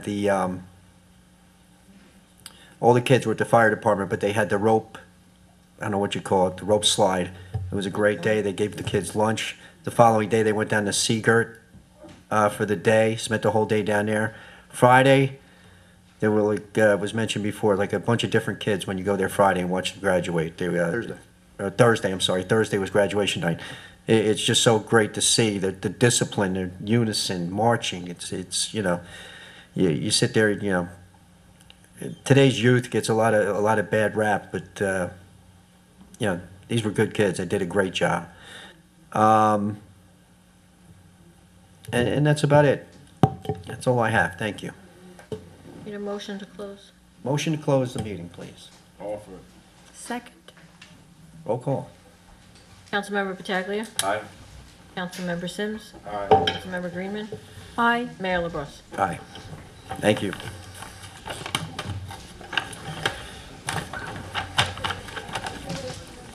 the, um, all the kids were at the fire department, but they had the rope, I don't know what you call it, the rope slide. It was a great day. They gave the kids lunch. The following day, they went down to Seagirt, uh, for the day, spent the whole day down there. Friday, there were like, uh, was mentioned before, like a bunch of different kids when you go there Friday and watch them graduate. They, uh, Thursday. uh, Thursday, I'm sorry. Thursday was graduation night. It, it's just so great to see the, the discipline, the unison, marching. It's, it's, you know, you, you sit there, you know, today's youth gets a lot of a lot of bad rap, but uh, you know these were good kids. They did a great job, um, and, and that's about it. That's all I have. Thank you. Need a motion to close? Motion to close the meeting, please. Offer. Second. Roll call. Councilmember Pataglia. Aye. Councilmember Sims. Aye. Councilmember Greenman. Aye. Mayor LaBrus. Aye. Thank you.